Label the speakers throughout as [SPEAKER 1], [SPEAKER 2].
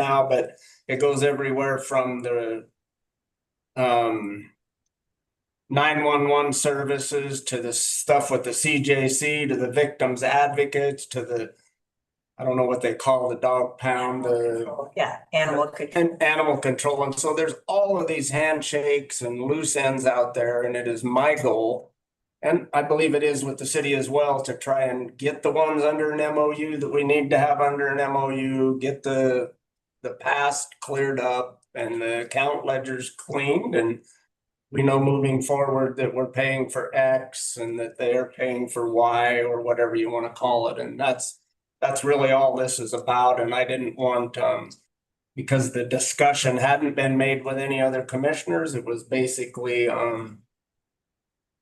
[SPEAKER 1] now, but it goes everywhere from the um nine-one-one services to the stuff with the CJC, to the victims advocates, to the I don't know what they call the dog pound, the
[SPEAKER 2] Yeah, animal control.
[SPEAKER 1] and animal control. And so there's all of these handshakes and loose ends out there, and it is my goal. And I believe it is with the city as well to try and get the ones under an MOU that we need to have under an MOU, get the the past cleared up and the account ledgers cleaned and we know moving forward that we're paying for X and that they are paying for Y or whatever you want to call it. And that's that's really all this is about. And I didn't want um because the discussion hadn't been made with any other commissioners. It was basically, um,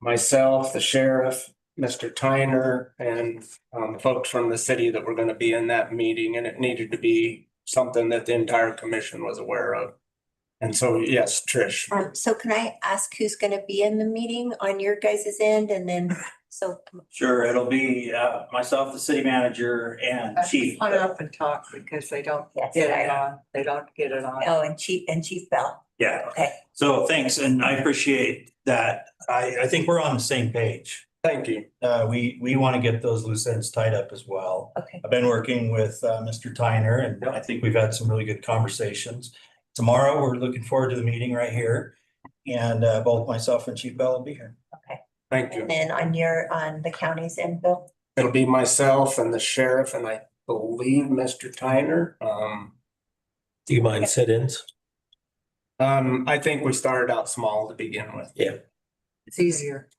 [SPEAKER 1] myself, the sheriff, Mr. Tyner, and, um, folks from the city that were gonna be in that meeting, and it needed to be something that the entire commission was aware of. And so, yes, Trish,
[SPEAKER 3] Um, so can I ask who's gonna be in the meeting on your guys' end and then, so,
[SPEAKER 4] Sure, it'll be uh myself, the city manager and chief.
[SPEAKER 2] Put up and talk because they don't
[SPEAKER 3] yes,
[SPEAKER 2] get it
[SPEAKER 3] I-
[SPEAKER 2] on, they don't get it on.
[SPEAKER 3] oh, and Chief, and Chief Bell,
[SPEAKER 4] Yeah,
[SPEAKER 3] okay.
[SPEAKER 4] so thanks, and I appreciate that. I I think we're on the same page.
[SPEAKER 1] thank you.
[SPEAKER 4] Uh, we we want to get those loose ends tied up as well.
[SPEAKER 3] Okay.
[SPEAKER 4] I've been working with uh Mr. Tyner and I think we've had some really good conversations. Tomorrow, we're looking forward to the meeting right here. And uh both myself and Chief Bell will be here.
[SPEAKER 1] Thank you.
[SPEAKER 3] And then on your, on the county's end, Bill,
[SPEAKER 1] It'll be myself and the sheriff, and I believe Mr. Tyner. Um,
[SPEAKER 5] Do you mind sit-ins?
[SPEAKER 1] um, I think we started out small to begin with.
[SPEAKER 2] It's easier.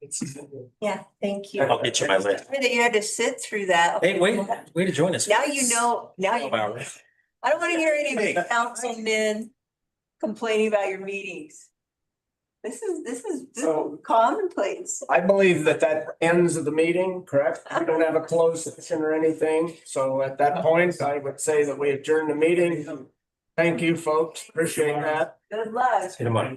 [SPEAKER 2] It's easier.
[SPEAKER 3] yeah, thank you.
[SPEAKER 5] I'll get you my list.
[SPEAKER 3] That you had to sit through that.
[SPEAKER 5] Hey, wait, way to join us.
[SPEAKER 3] Now you know, now you,
[SPEAKER 5] Twelve hours.
[SPEAKER 3] I don't wanna hear any of the
[SPEAKER 4] Hey.
[SPEAKER 3] councilmen complaining about your meetings. This is, this is this is
[SPEAKER 1] So-
[SPEAKER 3] commonplace.
[SPEAKER 1] I believe that that ends of the meeting, correct? We don't have a closed session or anything, so at that point, I would say that we adjourn the meeting. Thank you, folks, appreciate that.
[SPEAKER 3] Good luck.
[SPEAKER 5] See you tomorrow.